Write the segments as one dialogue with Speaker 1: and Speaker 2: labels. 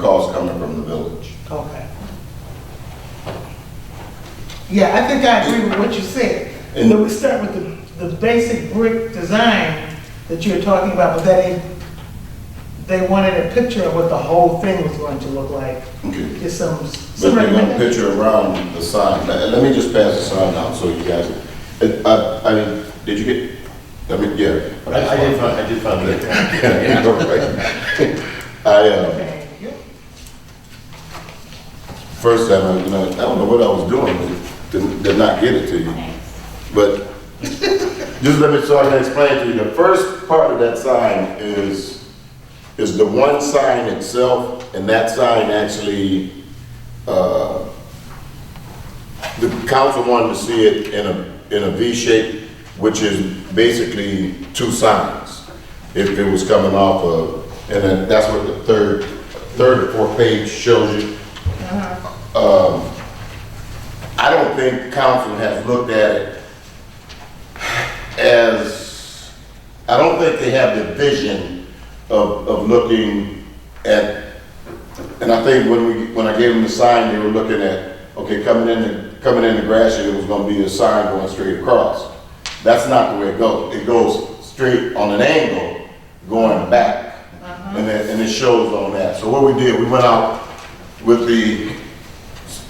Speaker 1: Calls coming from the village.
Speaker 2: Okay. Yeah, I think I agree with what you said.
Speaker 1: And-
Speaker 2: But we start with the, the basic brick design that you were talking about, but that they, they wanted a picture of what the whole thing was going to look like.
Speaker 1: Okay.
Speaker 2: Just some,
Speaker 1: But
Speaker 2: some
Speaker 1: they're gonna
Speaker 2: recommendation.
Speaker 1: picture around the sign. Let, let me just pass the sign out so you guys, I- I, I mean, did you get, I mean, yeah.
Speaker 3: I, I did find, I did find it.
Speaker 1: Yeah, all right. I, uh,
Speaker 2: Okay, yeah.
Speaker 1: first time, I, you know, I don't know what I was doing, did, did not get it to you. But just let me, so I can explain to you, the first part of that sign is, is the one sign itself, and that sign actually, uh, the council wanted to see it in a, in a V shape, which is basically two signs, if it was coming off of, and then that's what the third, third or fourth page shows you. I don't think council has looked at it as, I don't think they have the vision of, of looking at, and I think when we, when I gave them the sign, they were looking at, okay, coming in, the- coming in the grass, it was gonna be a sign going straight across. That's not the way it goes. It goes straight on an angle, going back. And it, and it shows on that. So what we did, we went out with the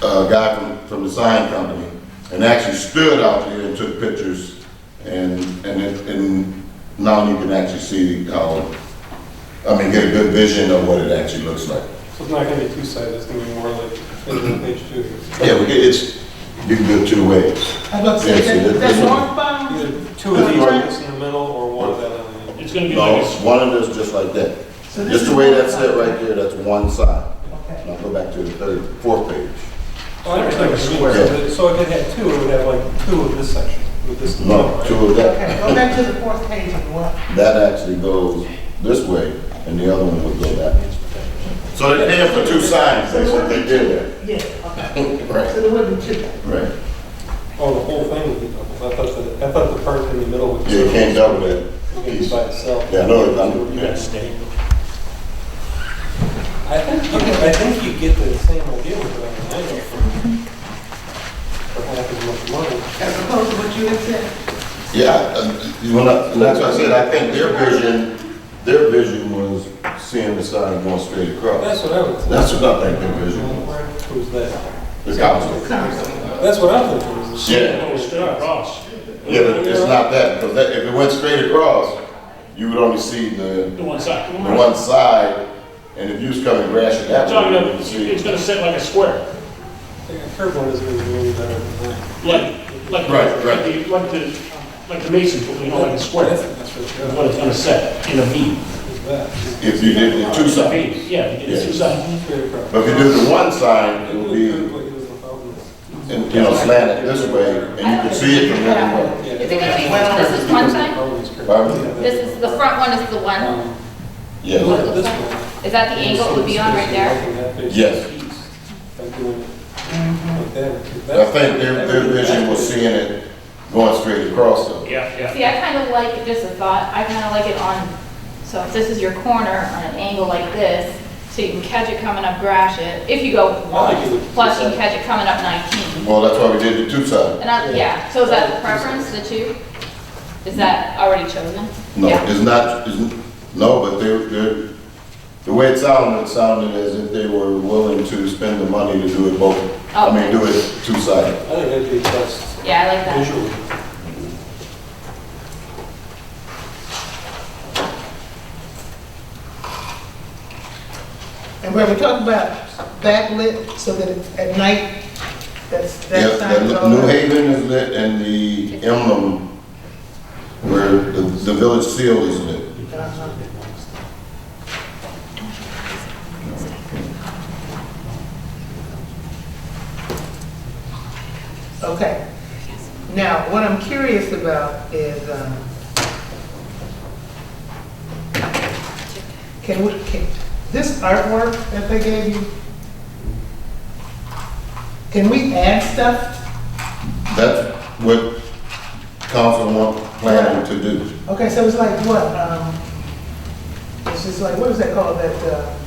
Speaker 1: a guy from, from the sign company, and actually stood out there and took pictures, and, and it, and now you can actually see how, I mean, get a good vision of what it actually looks like.
Speaker 4: So it's not gonna be two-sided, it's gonna be more like page two.
Speaker 1: Yeah, we get, it's, you can do it two ways.
Speaker 2: I was about to
Speaker 1: Yeah, see,
Speaker 2: say, that-
Speaker 1: that-
Speaker 2: that's
Speaker 1: that's-
Speaker 2: northbound,
Speaker 4: Either two of these ones in the middle or one of that on the end.
Speaker 5: It's gonna be
Speaker 1: No,
Speaker 5: like,
Speaker 1: it's one of those just like that.
Speaker 2: So this
Speaker 1: Just the
Speaker 2: is
Speaker 1: way
Speaker 2: one
Speaker 1: that's set
Speaker 2: side.
Speaker 1: right there, that's one side.
Speaker 2: Okay.
Speaker 1: Now go back to the third, fourth page.
Speaker 4: Oh, I understand what you mean. So that- So if it had two, it would have like two of this section, with this.
Speaker 1: No, two of that.
Speaker 2: okay, go back to the fourth page and what?
Speaker 1: That actually goes this way, and the other one would go that way. So they did for two signs, that's what they did.
Speaker 2: Yeah, okay,
Speaker 1: Right.
Speaker 2: so there wouldn't be two.
Speaker 1: Right.
Speaker 4: Oh, the whole thing would be double. I thought the, I thought the part in the middle would. be
Speaker 1: Yeah, you can't double that.
Speaker 4: It could be by itself.
Speaker 1: Yeah, no, it's under,
Speaker 5: you gotta stay.
Speaker 4: I think, you get- I think you get the same idea with it on the end for, for half as much money.
Speaker 2: As opposed to what you had said?
Speaker 1: yeah, uh, you wanna, and that's what I said, I think their vision, their vision was seeing the sign going straight across.
Speaker 4: That's what I would say.
Speaker 1: That's what I think their vision was,
Speaker 4: Who's that?
Speaker 1: the council.
Speaker 4: That's what I'm thinking. is-
Speaker 1: Yeah.
Speaker 5: Oh, it's straight across.
Speaker 1: Yeah, but it's not that, because that, if it went straight across, you would only see the,
Speaker 5: The one side.
Speaker 1: the one side, and if you was coming grassy that
Speaker 5: Talking
Speaker 1: way, you
Speaker 5: about,
Speaker 1: would
Speaker 5: it's
Speaker 1: see.
Speaker 5: gonna sit like a square,
Speaker 4: Like a curb one is gonna be really better than that.
Speaker 5: like, like.
Speaker 1: Right, right.
Speaker 5: Like the, like the, like the mason, put, you know, like a square.
Speaker 4: That's,
Speaker 5: That's
Speaker 4: that's really
Speaker 5: what
Speaker 4: good.
Speaker 5: it's gonna set in a V.
Speaker 4: It's that.
Speaker 1: If you did the two
Speaker 5: It's a
Speaker 1: sides,
Speaker 5: V, yeah, it's two
Speaker 1: Yeah.
Speaker 5: sides.
Speaker 4: Straight across.
Speaker 1: but if you did the one side, it would be,
Speaker 4: Well,
Speaker 1: and, you know, slanted this way, and you could see it from everywhere.
Speaker 6: Is it gonna be, this is one side? This is, the front one is the one,
Speaker 1: Yeah,
Speaker 6: is that the angle it would be on right there?
Speaker 1: Yes.
Speaker 6: Mm-hmm.
Speaker 1: I think their, their vision was seeing it going straight across them.
Speaker 5: Yeah, yeah.
Speaker 6: See, I kind of like, just a thought, I kind of like it on, so if this is your corner on an angle like this, so you can catch it coming up Gratiot, if you go one, plus you can catch it coming up 19.
Speaker 1: Well, that's why we did the two side.
Speaker 6: And I, yeah, so is that the preference, the two? Is that already chosen?
Speaker 1: No,
Speaker 6: Yeah.
Speaker 1: it's not, it's, n- no, but they, they, the way it sounded, it sounded as if they were willing to spend the money to do it both. I mean, do it two sided.
Speaker 4: I think that'd be best
Speaker 6: Yeah, I like that.
Speaker 4: visually.
Speaker 2: And where we talk about backlit, so that it- at night, that's,
Speaker 1: Yeah,
Speaker 2: that sign
Speaker 1: and
Speaker 2: is
Speaker 1: New-
Speaker 2: all.
Speaker 1: New Haven is lit and the emblem where the, the village seal is lit.
Speaker 2: Okay. Now, what I'm curious about is, um, can we, can, this artwork that they gave you, can we add stuff?
Speaker 1: That's what council want, planning to do.
Speaker 2: Okay, so it's like what, um, it's just like, what is that called, that, uh,